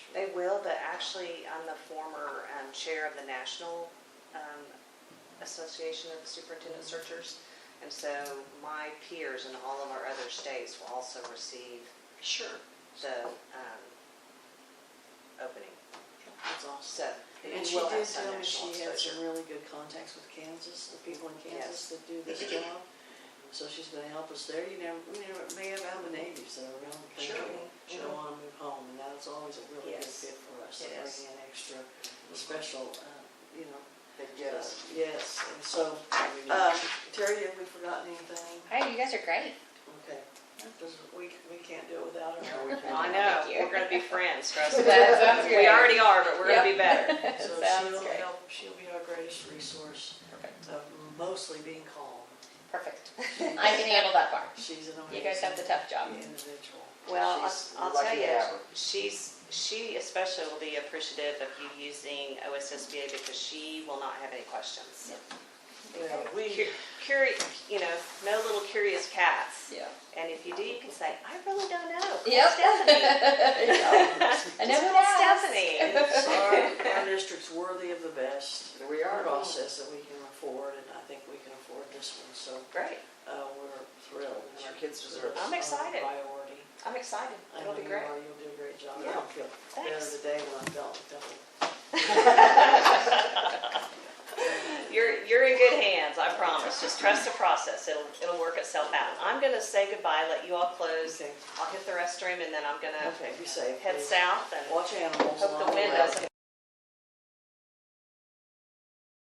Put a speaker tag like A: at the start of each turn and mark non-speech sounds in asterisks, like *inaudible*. A: will, but actually, I'm the former um, chair of the National um, Association of Superintendent Searchers. And so my peers in all of our other states will also receive
B: Sure.
A: the um, opening.
B: That's awesome.
A: So
B: And
A: we
B: she
A: will have
B: did
A: some
B: tell me
A: national
B: she had
A: exposure.
B: some really good contacts with Kansas, the people in Kansas that do
A: *laughs*
B: this job. So she's gonna help us there. You never, we never, may have Alabama natives that are around the
A: Sure.
B: country. She'll
A: Mhm.
B: wanna move home, and that's always a really good
A: Yes.
B: fit for us, to
A: It
B: bring
A: is.
B: in extra, special, uh, you know.
A: They
B: uh,
A: give us-
B: Yes, and so,
A: Uh,
B: um, Terry, have we forgotten anything?
C: Hey, you guys are great.
B: Okay, because we, we can't do it without her.
A: I know,
C: Thank you.
A: we're gonna be friends, trust me.
C: That sounds
A: We
C: great.
A: already are, but we're gonna be
C: *laughs*
A: better.
B: So
C: Sounds
B: she'll
C: great.
B: help, she'll be our greatest resource
C: Perfect.
B: of mostly being
A: *laughs*
B: calm.
C: Perfect. I can handle that part.
B: She's an amazing.
C: You guys have the tough job.
B: Individual.
A: Well, I'll-
B: She's-
A: I'll
D: lucky
A: tell
D: to
A: you,
D: have her.
A: she's, she especially will be appreciative of you using OSSBA because she will not have any questions.
B: Well, we,
A: Cu- Curious, you know, no little curious cats.
C: Yeah.
A: And if you do, you can say, I really don't know. Call
C: Yep. *laughs*
A: Stephanie.
C: I never
A: Call
C: asked.
A: Stephanie.
B: our, our district's worthy of the best
D: We are.
B: process that we can afford, and I think we can afford this one, so,
A: Great,
B: uh, we're thrilled.
D: And our kids deserve it.
A: I'm
B: Our
A: excited.
B: Priority.
A: I'm excited.
B: I
A: It'll
B: know
A: be
B: you
A: great.
B: are. You'll do a great job.
A: Yeah.
B: I feel better
A: Thanks.
B: today when I felt double.
A: You're, you're in good hands, I promise. Just trust the process. It'll, it'll work itself out. I'm gonna say goodbye, let you all close.
B: Okay.
A: I'll hit the restroom and then I'm gonna
B: Okay, be safe.
A: head
B: please.
A: south and
B: Watch animals.
A: hope
B: along
A: the wind
B: way.
A: doesn't